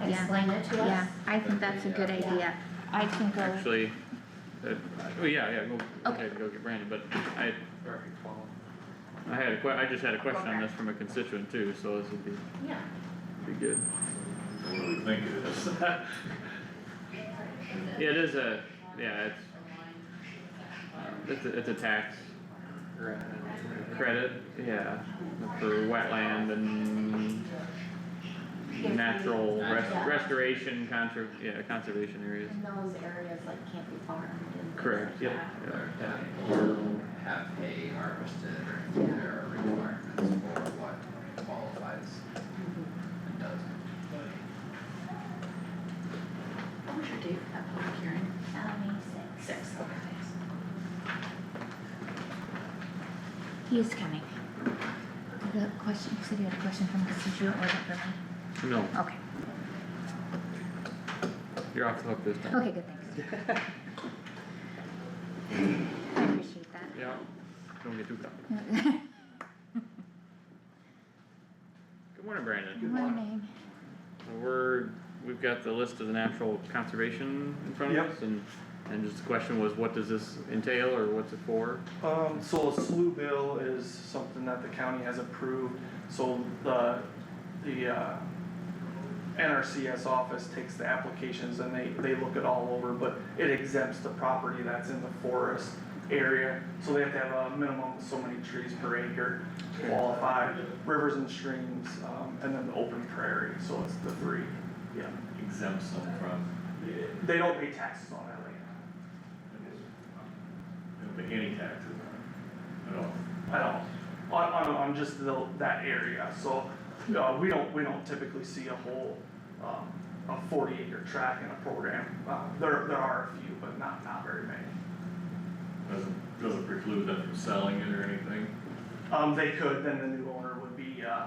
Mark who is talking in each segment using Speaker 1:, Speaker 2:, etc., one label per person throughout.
Speaker 1: Yeah.
Speaker 2: explain it to us?
Speaker 1: Yeah, I think that's a good idea. I can go,
Speaker 3: actually, uh, oh, yeah, yeah, go, go
Speaker 1: Uh, Okay.
Speaker 3: ahead, go get Brandon, but I, I had a que- I just had a question on this from a constituent too, so this would be,
Speaker 2: Yeah,
Speaker 3: be good.
Speaker 4: What do we think it is?
Speaker 3: Yeah, it is a, yeah, it's, um, it's a, it's a tax credit, yeah, for wetland and natural res-
Speaker 2: Yeah.
Speaker 3: restoration, conser- yeah, conservation areas.
Speaker 2: and those areas like can't be farmed and. things
Speaker 3: Correct,
Speaker 2: like
Speaker 3: yep,
Speaker 2: that.
Speaker 3: yep.
Speaker 5: Or have hay harvested, or there are requirements for what qualifies and doesn't.
Speaker 6: What was your date for that public hearing?
Speaker 2: Uh, May six.
Speaker 6: Six, okay.
Speaker 1: he's coming. The question, you said you had a question from constituent, was it for me?
Speaker 3: No,
Speaker 1: Okay,
Speaker 3: you're off the hook this time.
Speaker 1: okay, good, thanks. I appreciate
Speaker 3: Yeah, don't get too comfortable.
Speaker 1: that.
Speaker 3: Good morning, Brandon.
Speaker 1: Morning.
Speaker 3: We're, we've got the list of the natural conservation in front of
Speaker 7: Yep.
Speaker 3: us and, and just the question was, what does this entail or what's it for?
Speaker 7: Um, so a slew bill is something that the county has approved, so the, the, uh, NRCS office takes the applications and they, they look it all over, but it exempts the property that's in the forest area. So they have to have a minimum of so many trees per acre to qualify, rivers and streams, um, and then the open prairie, so it's the three, yeah.
Speaker 4: Exempts them from,
Speaker 7: They don't pay taxes on that land
Speaker 4: they don't pay any taxes on it at all.
Speaker 7: at all, on, on, on just the, that area, so, uh, we don't, we don't typically see a whole, um, a forty acre track in a program, uh, there, there are a few, but not, not very many.
Speaker 4: Doesn't, doesn't preclude them from selling it or anything.
Speaker 7: Um, they could, then the new owner would be, uh,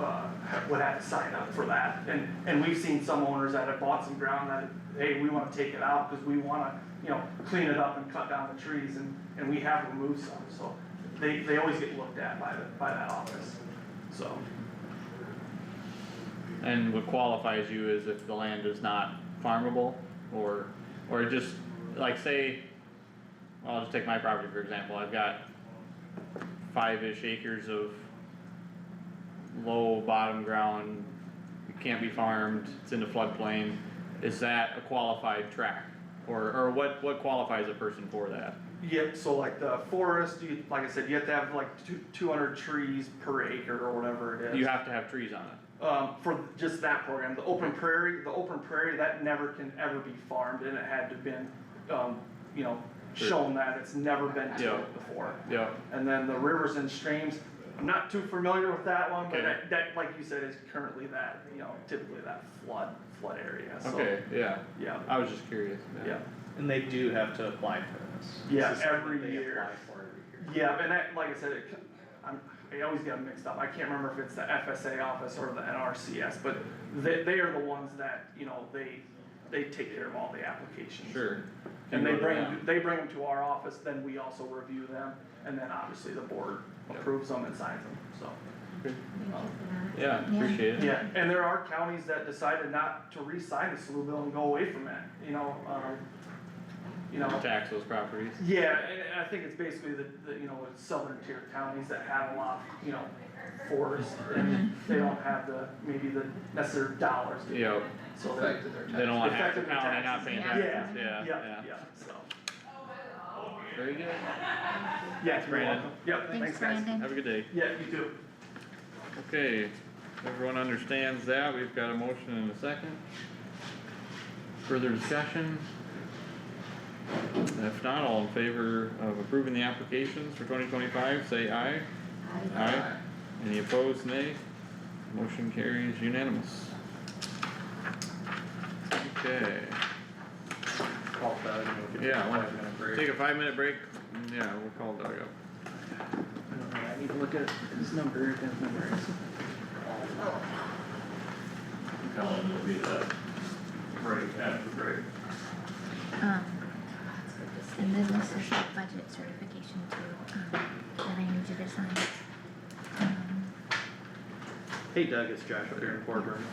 Speaker 7: uh, would have to sign up for that, and, and we've seen some owners that have bought some ground that, hey, we wanna take it out, cause we wanna, you know, clean it up and cut down the trees, and, and we have removed some, so they, they always get looked at by the, by that office, so.
Speaker 3: And what qualifies you is if the land is not farmable or, or just, like say, well, I'll just take my property for example, I've got five-ish acres of low bottom ground, it can't be farmed, it's in the floodplain, is that a qualified tract? Or, or what, what qualifies a person for that?
Speaker 7: Yep, so like the forest, you, like I said, you have to have like two, two hundred trees per acre or whatever it is.
Speaker 3: You have to have trees on it,
Speaker 7: Um, for just that program, the open prairie, the open prairie, that never can ever be farmed and it had to been, um, you know,
Speaker 3: Sure.
Speaker 7: shown that it's never been
Speaker 3: Yeah.
Speaker 7: tilled before.
Speaker 3: yeah,
Speaker 7: And then the rivers and streams, I'm not too familiar with that one, but
Speaker 3: Okay.
Speaker 7: that, that, like you said, is currently that, you know, typically that flood, flood area, so.
Speaker 3: okay, yeah,
Speaker 7: Yeah,
Speaker 3: I was just curious.
Speaker 7: yeah.
Speaker 8: And they do have to apply for this. This
Speaker 7: Yeah,
Speaker 8: is something
Speaker 7: every
Speaker 8: they
Speaker 7: year.
Speaker 8: apply for every year.
Speaker 7: Yeah, and that, like I said, it, c- I'm, I always get 'em mixed up, I can't remember if it's the FSA office or the NRCS, but they, they are the ones that, you know, they, they take care of all the applications.
Speaker 3: Sure.
Speaker 7: And they
Speaker 3: Can go to
Speaker 7: bring,
Speaker 3: them.
Speaker 7: they bring them to our office, then we also review them, and then obviously the board approves them and signs them, so.
Speaker 2: Thank you for that.
Speaker 3: Yeah,
Speaker 1: Yeah.
Speaker 3: appreciate it.
Speaker 7: Yeah, and there are counties that decided not to re-sign the SLU bill and go away from it, you know, um, you know.
Speaker 3: Tax those properties.
Speaker 7: Yeah, and and I think it's basically the, the, you know, with southern tier counties that have a lot, you know, forest, and they don't have the, maybe the necessary dollars. to-
Speaker 3: Yeah,
Speaker 7: So they're,
Speaker 5: Affected their tax.
Speaker 3: they don't want half the
Speaker 7: Effective
Speaker 3: county
Speaker 7: taxes.
Speaker 3: not paying
Speaker 1: Yeah.
Speaker 7: yeah,
Speaker 3: taxes,
Speaker 7: yeah,
Speaker 3: yeah, yeah.
Speaker 7: yeah, so,
Speaker 3: Very good.
Speaker 7: yeah, you're
Speaker 3: Brandon.
Speaker 7: welcome. Yep,
Speaker 1: Thanks,
Speaker 7: thanks guys.
Speaker 1: Brandon.
Speaker 3: Have a good day.
Speaker 7: Yeah, you too.
Speaker 3: Okay, everyone understands that. We've got a motion and a second. Further discussion? If not, all in favor of approving the applications for twenty twenty-five, say aye. Aye. Any opposed, nay? Motion carries unanimous. Okay,
Speaker 8: Call Doug and we'll give
Speaker 3: Yeah,
Speaker 8: him
Speaker 3: I
Speaker 8: a
Speaker 3: wanna
Speaker 8: five minute break.
Speaker 3: take a five-minute break. and Yeah, we'll call Doug up.
Speaker 8: I don't know, I need to look at his number, if his number is.
Speaker 4: Tell them it'll be that break after break.
Speaker 1: Um, and then this is the budget certification too, um, that I need you to sign. Um,
Speaker 8: Hey Doug, it's Josh up here in Portland.